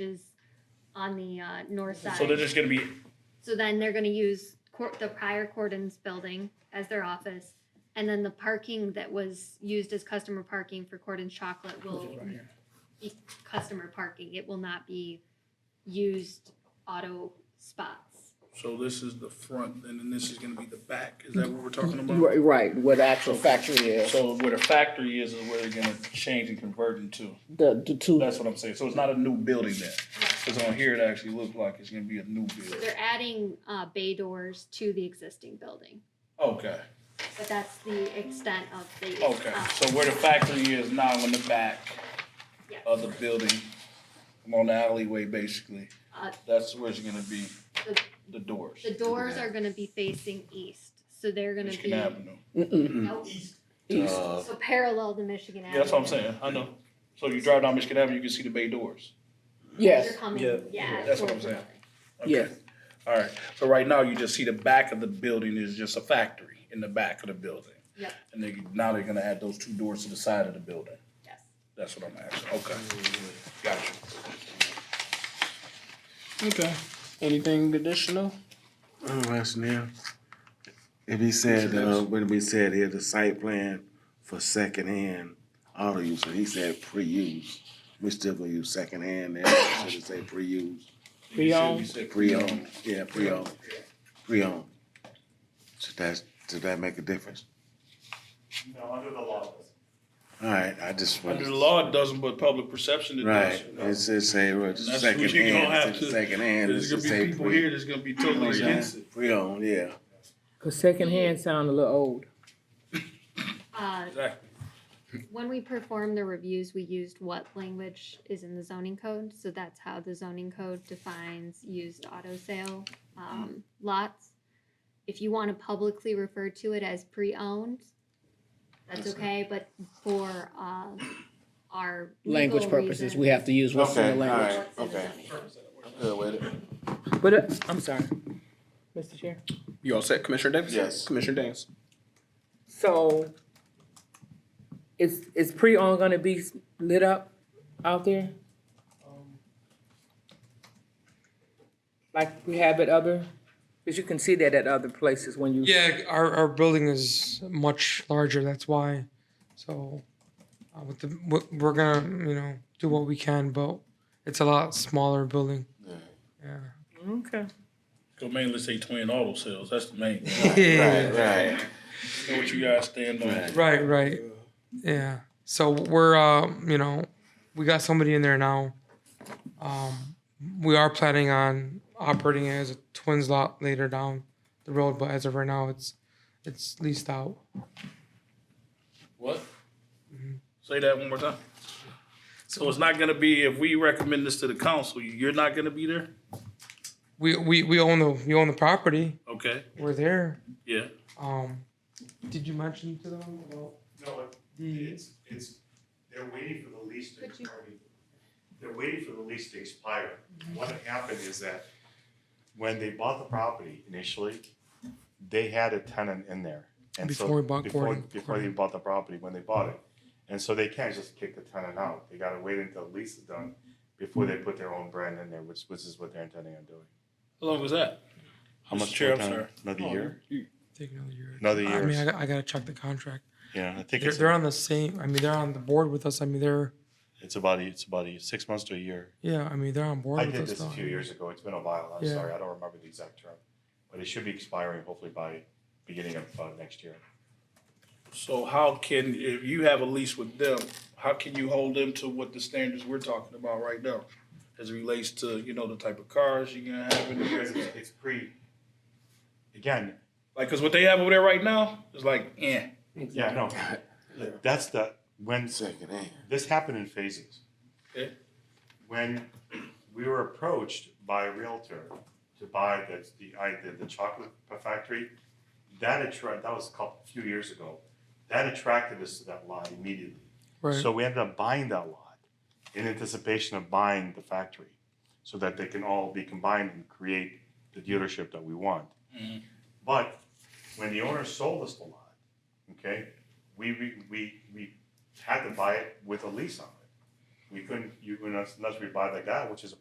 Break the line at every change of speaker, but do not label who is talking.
is on the uh, north side.
So they're just gonna be
So then they're gonna use court, the prior Cordon's building as their office. And then the parking that was used as customer parking for Cordon's Chocolate will be customer parking. It will not be used auto spots.
So this is the front, and then this is gonna be the back, is that what we're talking about?
Right, right, where the actual factory is,
so where the factory is is where they're gonna change and convert into.
the, the two,
That's what I'm saying. So it's not a new building then. Cause on here it actually looks like it's gonna be a new
So
building.
they're adding uh, bay doors to the existing building,
Okay,
but that's the extent of the.
okay.
uh,
So where the factory is now in the back
yeah.
of the building, on the alleyway basically,
Uh,
that's where it's gonna be,
The-
the doors.
The doors are gonna be facing east, so they're gonna
Michigan
be.
Avenue.
mm-mm,
Nope.
east.
Uh,
So parallel to Michigan Avenue.
Yeah, that's what I'm saying. I know. So you drive down Michigan Avenue, you can see the bay doors.
Yes,
They're coming,
Yeah.
yeah.
That's what I'm
towards
saying.
the-
Okay.
yes,
All right, so right now you just see the back of the building is just a factory in the back of the building.
Yep.
And they, now they're gonna add those two doors to the side of the building.
Yes.
That's what I'm asking, okay.
Mm-hmm.
Gotcha.
okay. Anything additional?
Oh, that's new. If he said, uh, when we said here, the site plan for secondhand auto use, and he said pre-use, we still gonna use secondhand there, should it say pre-use?
Pre-owned.
You said- you said
Pre-owned, yeah, pre-owned, pre-owned. Should that, did that make a difference?
No, under the law. it doesn't.
Alright, I just
Under the
wanted,
law, it doesn't, but public perception it does.
right, it's, it's say, well, it's
That's what you gonna have
secondhand,
to-
it's secondhand, it's
There's
just
gonna be
say
people here
pre.
that's gonna be totally against it.
Pre-owned, yeah.
Cause secondhand sound a little old.
Uh,
Exactly.
when we performed the reviews, we used what language is in the zoning code, so that's how the zoning code defines used auto sale, um, lots. If you wanna publicly refer to it as pre-owned, that's okay, but for, uh, our
Language
legal
purposes,
reason-
we have to use what's in the
Okay,
language.
alright,
what's in the
okay.
zoning code.
Good with it.
But, uh, I'm sorry, Mr. Chair.
You all set, Commissioner Davis?
Yes.
Commissioner Davis?
So, is, is pre-owned gonna be lit up out there? Like we have at other, cause you can see that at other places when you.
Yeah, our, our building is much larger, that's why. So, uh, with the, what- we're gonna, you know, do what we can, but it's a lot smaller building. Yeah.
Okay.
Go mainly say twin auto sales, that's the main, thing.
Yeah,
Right,
know what you guys stand on.
right, right. Yeah. So we're, uh, you know, we got somebody in there now. Um, we are planning on operating it as a twins lot later down the road, but as of right now, it's, it's leased out.
What? Say that one more time. So it's not gonna be, if we recommend this to the council, you're not gonna be there?
We, we, we own the, we own the property,
Okay,
we're there.
yeah.
Um, did you mention to them about
No, it-
the?
it's, it's, they're waiting for the lease to
Could you-
expire. They're waiting for the lease to expire. What had happened is that when they bought the property initially, they had a tenant in there. And so
Before we bought
before-
Gordon.
Before they bought the property, when they bought it. And so they can't just kick the tenant out. They gotta wait until the lease is done before they put their own brand in there, which, which is what they're intending on doing.
How long was that?
How
Mr.
much
Chair,
more
I'm
time?
sorry.
Another
Oh.
year?
Take another year.
Another
I mean, I,
year.
got- I gotta check the contract.
Yeah, I think
They're,
it's,
they're on the same. I mean, they're on the board with us. I mean, they're
it's about, it's about six months to a year.
yeah. I mean, they're on board
I
with
did
us.
this a
though.
few years ago, it's been a while, I'm
Yeah.
sorry, I don't remember the exact term, but it should be expiring hopefully by beginning of uh, next year.
So how can, if you have a lease with them, how can you hold them to what the standards we're talking about right now? As it relates to, you know, the type of cars you're gonna have in there?
Because it's, it's pre, again,
Like, cause what they have over there right now is like, eh.
yeah, no, that's the, when
secondhand.
this happened in phases.
Okay.
When we were approached by a realtor to buy the, the, I, the, the chocolate factory, that attract, that was a couple, few years ago, that attracted us to that lot immediately.
Right.
So we ended up buying that lot in anticipation of buying the factory so that they can all be combined and create the dealership that we want. But when the owner sold us the lot, okay, we, we, we, we had to buy it with a lease on it. We couldn't, you, unless unless we buy the guy, which is a